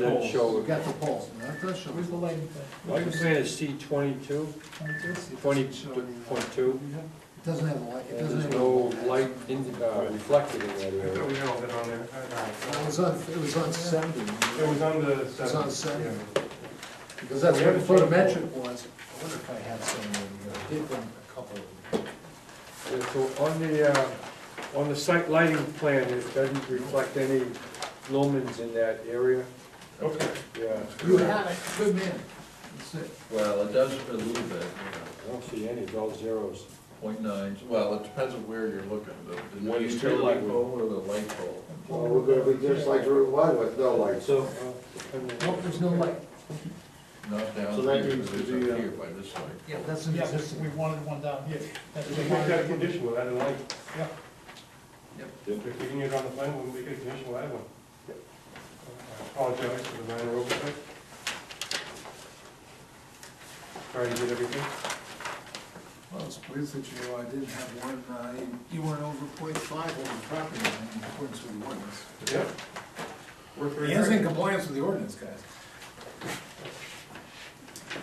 then We show, got the poles, but that does show. Where's the lighting plan? what you're saying is C twenty-two, twenty point two? It doesn't have a light, it And doesn't there's have. a no pole. light in, uh, reflected in that I thought area. we had all that on there. I- It I- was on, it was on seventy, It was on the was on seventh. seven. yeah. because that's We where the haven't seen a photometric was. I wonder if I had some, uh, I did them a couple of them. Yeah, So on the, uh, on the site lighting plan, it doesn't reflect any lumens in that area, Okay. yeah. You had it, good man. That's it. Well, it does a little bit, you I don't see any, it's all zeros. know, 0.9. well, it depends on where you're looking, the, What the you utility feel like. pole or the light pole. Well, we're gonna be just like Route One with no lights. So. uh, Nope, there's no light. Not down So that here, needs but it's to be, up uh, here by this light. Yeah, that's an Yeah, but we existing. wanted one down here. That's We what can we make that a wanted. condition, we'll add a light. Yeah. Yep. If we can get it on the plan, we'll make it a condition, we'll add one. I apologize for the minor oversight. Sorry to get everything. Well, it's weird that you, I didn't have one, uh, you- you weren't over point five over property line in accordance with the ordinance. Yeah. Worth He is in reviewing. compliance with the ordinance, guys.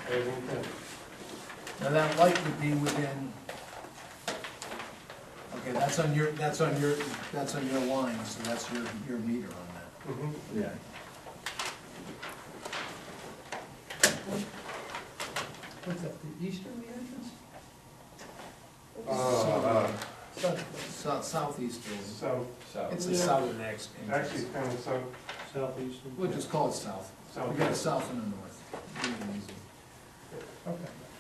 As intended. Now, that light would be within, okay, that's on your, that's on your, that's on your line, so that's your, your meter on that. Mhm. Yeah. What's that, the easterly entrance? Uh, uh, South, southeastern, So, it's the southern ex- actually, entrance. it's kind of uh, so, Southeastern. We'll just call it south. so. We got a south and a north. Okay.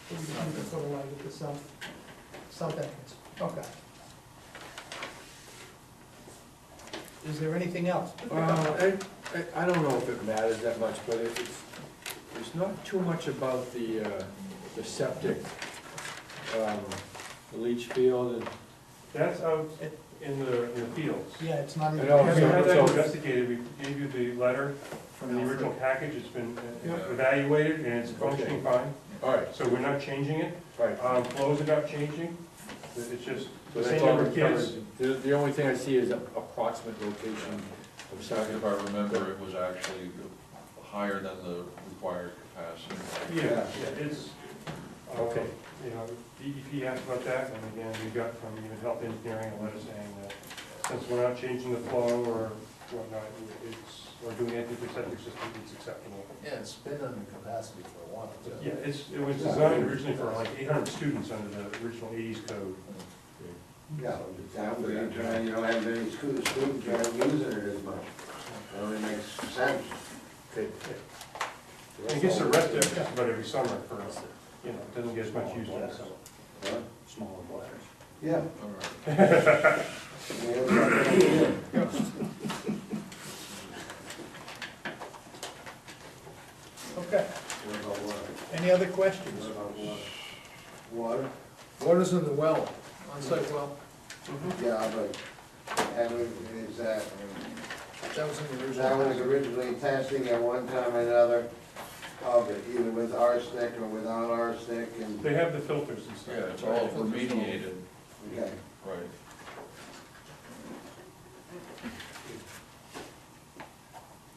So we just need to put a light at the south, south entrance. Okay. Is there anything else? Uh, I, I, I don't know if it matters that much, but it- it's, it's not too much about the, uh, the septic, um, the leach field and. That's out in the, in the fields. uh, Yeah, it's not even. I know, Have you so- had that so- uh, investigated? We gave you the letter From from the original package. It's been uh, Yeah. evaluated and it's functioning fine. All right, So we're not changing it. all right. Um, Flows are not changing. It's just So the that's same all number of we covered. kids. The, the only thing I see is approximate location of If Saginaw. I remember, it was actually higher than the required capacity. Yeah, Yeah. yeah, it's, uh, Okay. you know, DEP asked about that, and again, we got from even health engineering a letter saying that since we're not changing the flow or whatnot, it's, or doing anything to septic system, it's acceptable. Yeah, it's been under capacity for a while, too. Yeah, it's, it was designed originally for like eight hundred students under the original eighties code. Yeah, exactly, you're trying, you don't have any school, students are using it as much. That only makes sense. Okay. And It gets arrested just about every summer for, you know, it doesn't get as much use in the summer. Huh? Smaller bladders. Yeah. All right. we have something here. Okay. What about water? Any other questions? What about water? Water? Water's in the well, on-site well, Yeah, but, and is that, that was in the that was original. originally testing at one time or another of it, either with arsenic or without arsenic and, They have the filters and stuff. Yeah, it's all remediated, okay. right.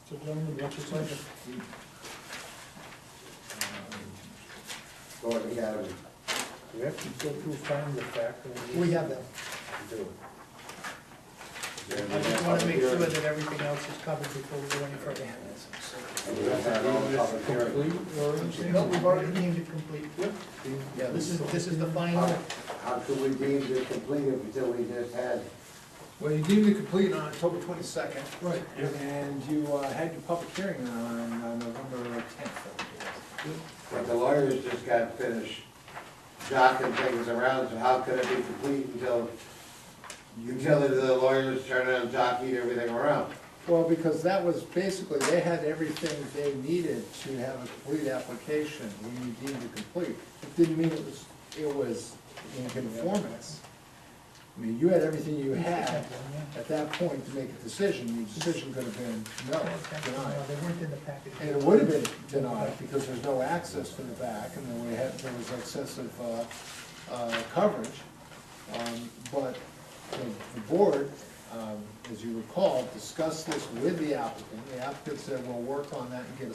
So gentlemen, what's your pleasure? Gordon Academy. Do we have to go through find the fact? that We have that. We do. I just want to make sure that everything else is covered before we go any further. We have to have all the public hearing. Complete or anything? No, we've already deemed it complete. Yeah, This is, this is the final. How how could we deem this complete if until we just had, Well, you deemed it complete on October twenty-second. Right. Yeah. And you uh, had your public hearing on uh, November tenth. but the lawyers just got finished jocking things around, so how could it be complete until, until the lawyers turn around and jockey everything around? Well, because that was basically, they had everything they needed to have a complete application when you deemed it complete. It didn't mean it was, it was in conformance. I mean, you had everything you had at that point to make a decision, your decision could have been no, denied. No, they weren't in the package. And it would have been denied because there's no access to the back and then we had, there was excessive, uh, uh, coverage. Um, but the, the board, um, as you recall, discussed this with the applicant. The applicant said, we'll work on that and get a